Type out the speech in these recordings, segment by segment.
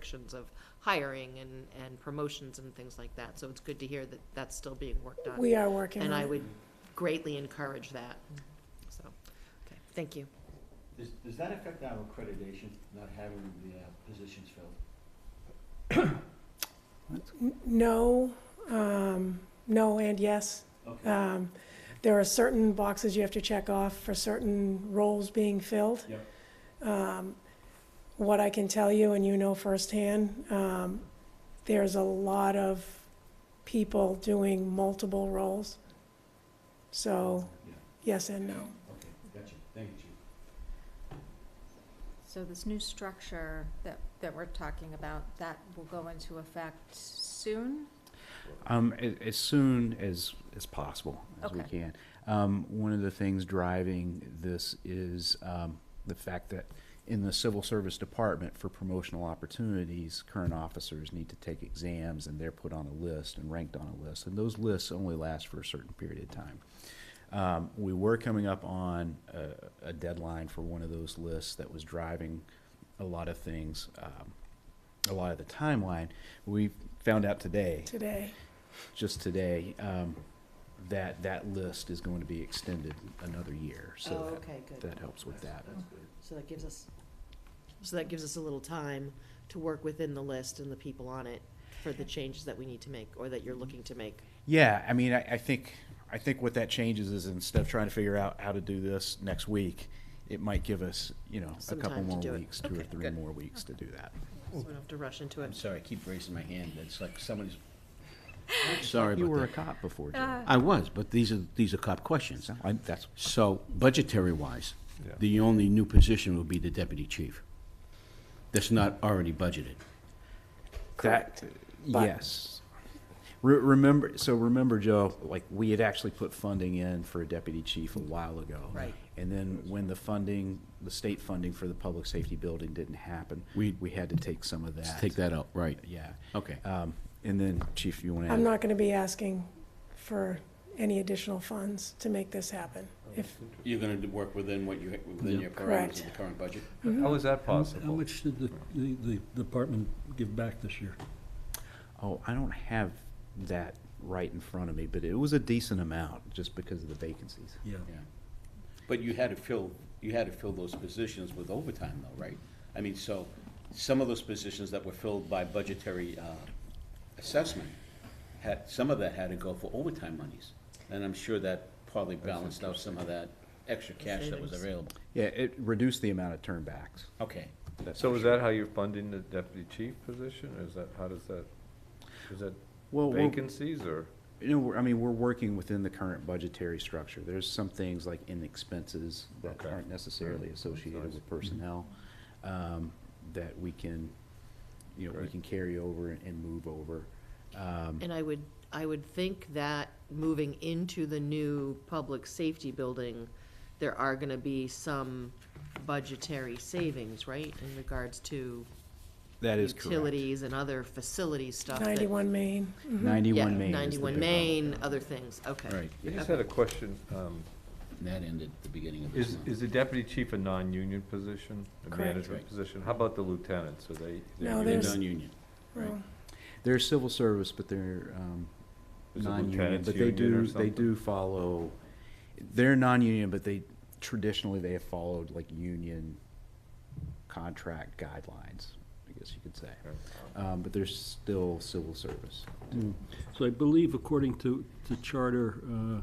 restrictions of hiring and, and promotions and things like that. So it's good to hear that that's still being worked on. We are working And on I it. would greatly encourage that. So, okay, thank you. Does, does that affect our accreditation, not having the uh, positions filled? N- No, um, no and yes. Okay, Um, There are certain boxes you have to check off for certain roles being filled. Yep. Um, What I can tell you, and you know firsthand, um, there's a lot of people doing multiple roles. So, yeah, yes and no. okay, gotcha, thank you, Chief. So this new structure that, that we're talking about, that will go into effect soon? Um, as, as soon as, as possible, as we Okay. can. Um, one of the things driving this is, um, the fact that in the civil service department for promotional opportunities, current officers need to take exams and they're put on a list and ranked on a list. And those lists only last for a certain period of time. Um, we were coming up on a, a deadline for one of those lists that was driving a lot of things, um, a lot of the timeline. We found out today Today, just today, um, that, that list is going to be extended another year, so that, Oh, okay, that helps with that. That's- That's good. So that gives us, so that gives us a little time to work within the list and the people on it for the changes that we need to make or that you're looking to make. Yeah, I mean, I, I think, I think what that changes is instead of trying to figure out how to do this next week, it might give us, you know, a Some couple time to more do it. weeks, two or Okay, three good. more weeks to do that. So we don't have to rush into I'm it. sorry, I keep raising my hand, it's like somebody's, sorry You about were a that. cop before, Joe. Ah. I was, but these are, these are cop questions. So, I- that's, So budgetary-wise, the only new position would be the deputy chief. That's not already budgeted. that, uh, But- yes. Re- remember, so remember, Joe, like, we had actually put funding in for a deputy chief a while ago. Right. And then when the funding, the state funding for the public safety building didn't happen, We- we had to take some of that. Take that out, right. Yeah. Okay. Um, and then, Chief, you want to add? I'm not gonna be asking for any additional funds to make this happen. If, You're gonna do- work within what you, within your Correct. parameters of the current budget? How is that How possible? much did the, the, the department give back this year? Oh, I don't have that right in front of me, but it was a decent amount just because of the vacancies. Yeah. Yeah. But you had to fill, you had to fill those positions with overtime though, right? I mean, so, some of those positions that were filled by budgetary, uh, assessment, had, some of that had to go for overtime monies. And I'm sure that probably balanced out some of that extra cash that was Savings. available. Yeah, it reduced the amount of turnbacks. Okay. that's So for is sure. that how you're funding the deputy chief position? Is that, how does that, is that Well, we're- vacancies or? You know, we're- I mean, we're working within the current budgetary structure. There's some things like in expenses that Okay. Mm-hmm. aren't necessarily associated nice. with personnel, um, that we can, you know, we Right. can carry over and move over. Um, And I would, I would think that moving into the new public safety building, there are gonna be some budgetary savings, right, in regards to That is correct. utilities and other facility stuff. that- ninety-one Main, Mm-hmm. Yeah, Ninety-one Main is the ninety-one big one. Main, other things, okay. Right, I yeah. just had a question. um, And that ended at the beginning of this Is, month. is the deputy chief a non-union position, a Correct. management position? How about the lieutenants? Are they? they No, union? They're there's- non-union. well, They're civil service, but they're, um, Is the non-union, lieutenants but they union or do, they something? do follow, they're non-union, but they, traditionally, they have followed like union contract guidelines, I guess you could say. Okay. Um, but they're still civil service. Mm. So I believe according to, to charter, uh,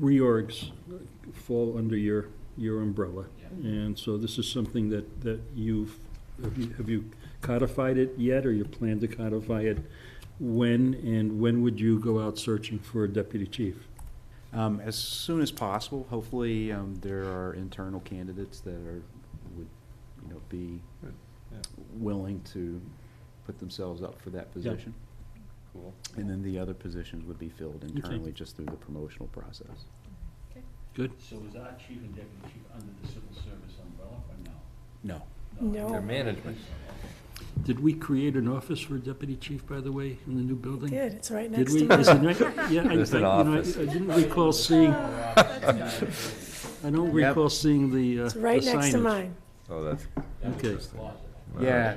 reorgs fall under your, your umbrella. And so this is something that, that you've, have you- have you codified it yet, or you plan to codify it? When, and when would you go out searching for a deputy chief? Um, as soon as possible, hopefully, um, there are internal candidates that are, would, you know, be Good, yeah. willing to put themselves up for that position. Cool. And then the other positions would be filled internally just through the promotional process. Good? So is our chief and deputy chief under the civil service umbrella or no? No. Their no, management. Did we create an office for a deputy chief, by the way, in the new building? did, it's right Did next we? to Is it mine. not- Yeah, I, I, you There's an know, I I office. didn't recall seeing, I Oh, don't Yep. recall seeing the, uh, the signage. It's right next to mine. Oh, that's Okay. Yeah,